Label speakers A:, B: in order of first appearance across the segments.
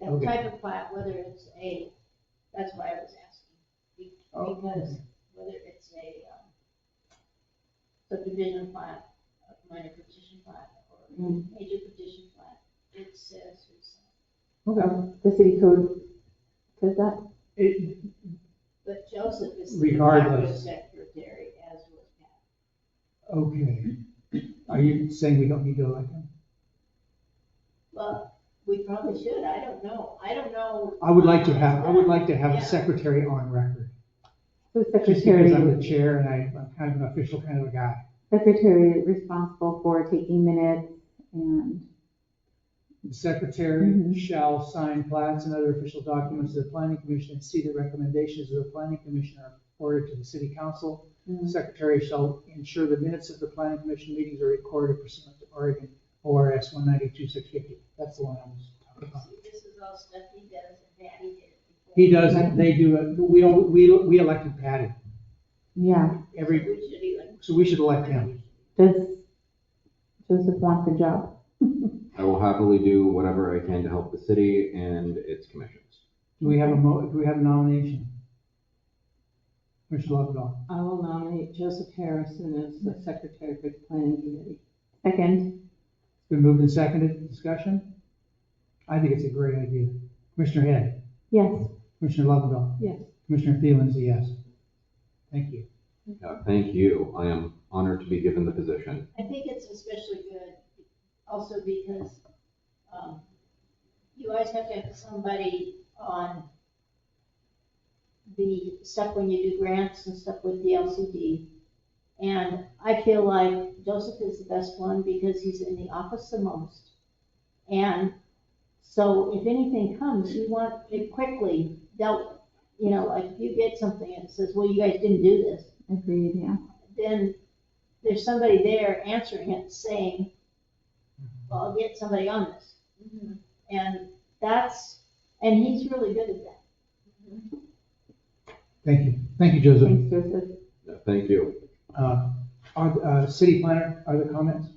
A: and the
B: Okay.
A: type of plat, whether it's a, that's why I was asking. be-
B: Oh.
A: Because whether it's a um, subdivision plat, a minor petition plat, or
C: Mm.
B: Mm-hmm.
A: major petition plat, it says it's,
B: Okay.
C: The city code says that?
B: It,
A: but Joseph is the macro
B: Regardless.
A: secretary as was Pat.
B: okay. Are you saying we don't need to elect him?
A: Well, we probably should, I don't know, I don't know.
B: I would like to have, I would like to have
A: Yeah.
B: a secretary on record.
C: So
B: Just because I'm
C: secretary,
B: the chair and I- I'm kind of an official kind of a guy.
C: secretary responsible for taking minutes and,
B: The secretary
C: Mhm.
B: shall sign plats and other official documents to the planning commission and see the recommendations of the planning commission are reported to the city council. The Secretary shall ensure the minutes of the planning commission meetings are recorded pursuant to Oregon ORS one ninety-two six fifty. That's the one I was talking about.
A: See, this is all stuff he does and Patty did. before.
B: He does, it, they do it, we, all- we, we elected Patty,
C: yeah,
B: every,
A: We should be like.
B: so we should elect him.
C: does Joseph want the job?
D: I will happily do whatever I can to help the city and its commissions.
B: Do we have a mo, do we have a nomination? Commissioner Lovendall,
E: I will nominate Joseph Harrison as the secretary for the planning committee.
C: Second,
B: it's been moved and seconded, discussion? I think it's a great idea. Commissioner Head,
C: yes,
B: Commissioner Lovendall.
E: Yes.
B: Commissioner Thielen's a yes. Thank you.
D: Uh, Thank you. I am honored to be given the position.
A: I think it's especially good also because um, you always have to have somebody on the stuff when you do grants and stuff with the LCD. And I feel like Joseph is the best one because he's in the office the most. And so if anything comes, you want it quickly dealt, with. you know, like if you get something and it says, well, you guys didn't do this
C: agreed, yeah.
A: then there's somebody there answering it saying, well, I'll get somebody on this. Mm-hmm. And that's, and he's really good at that.
B: Thank you. Thank you, Joseph.
C: Thanks, Joseph.
D: Uh, Thank you.
B: Uh, Are, uh, city planner, are there comments?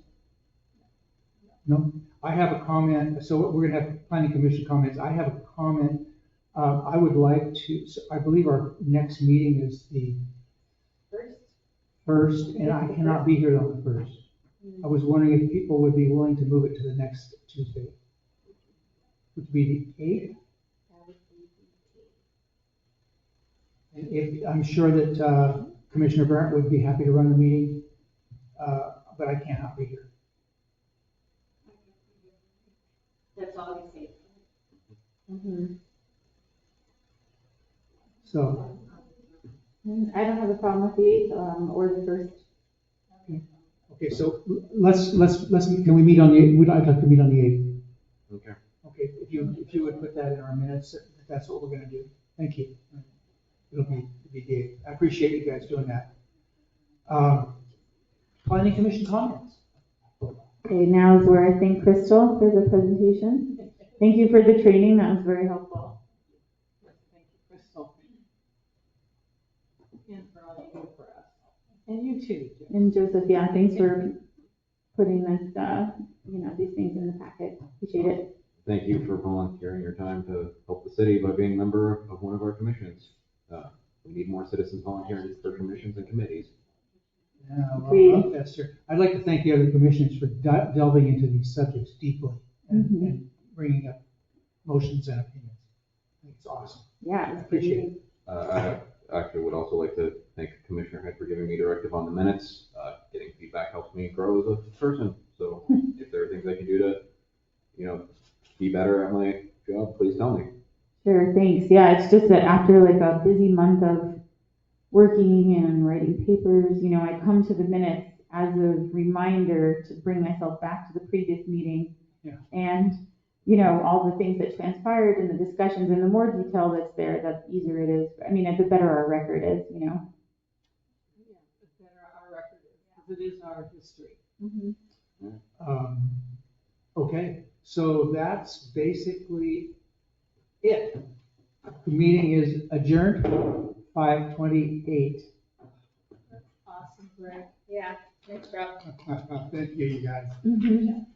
B: No? I have a comment, so we're gonna have planning commission comments. I have a comment. Uh, I would like to, so I believe our next meeting is the
A: First,
B: first, and I cannot be here on the first. I was wondering if people would be willing to move it to the next Tuesday, which would be the eighth? And if, I'm sure that uh, Commissioner Burnt would be happy to run the meeting, uh, but I cannot be here.
A: that's all I say.
B: So,
C: Mm, I don't have a problem with the eighth, um, or the first.
B: okay, so let's, let's, let's, can we meet on the, eighth? we'd like to meet on the 8th.
D: Okay.
B: Okay, if you, if you would put that in our minutes, if that's what we're gonna do. Thank you. It'll be, it'll be good. I appreciate you guys doing that. Um, Planning Commission comments?
C: Okay, now is where I thank Crystal for the presentation. Thank you for the training, that was very helpful.
E: Thank you, Crystal. And for all you do for us. And you too, Jim.
C: And Joseph, yeah, thanks for putting this, uh, you know, these things in the packet. Appreciate it.
D: Thank you for volunteering your time to help the city by being a member of one of our commissions. Uh, We need more citizens volunteering for commissions and committees.
B: Yeah, well,
C: Agreed.
B: that's true. I'd like to thank the other commissioners for di- delving into these subjects deeply and,
C: Mhm.
B: and bringing up motions and opinions. I think It's awesome.
C: Yeah. it's
B: Appreciate it.
C: amazing.
D: Uh, I actually would also like to thank Commissioner Head for giving me directive on the minutes. Uh, Getting feedback helps me grow as a person, so if there are things I can do to, you know, be better at my job, please tell me.
C: Sure, thanks. Yeah, it's just that after like a busy month of working and writing papers, you know, I come to the minutes as a reminder to bring myself back to the previous meeting.
B: Yeah.
C: And, you know, all the things that transpired and the discussions and the more detail that's there, the easier it is. I mean, the better our record is, you know?
E: Yeah, The better our record is, because it is our history.
B: Um, okay, so that's basically it. The meeting is adjourned, five twenty-eight.
A: Awesome, Brett. Yeah, thanks, Rob.
B: Thank you, you guys.
C: Mhm.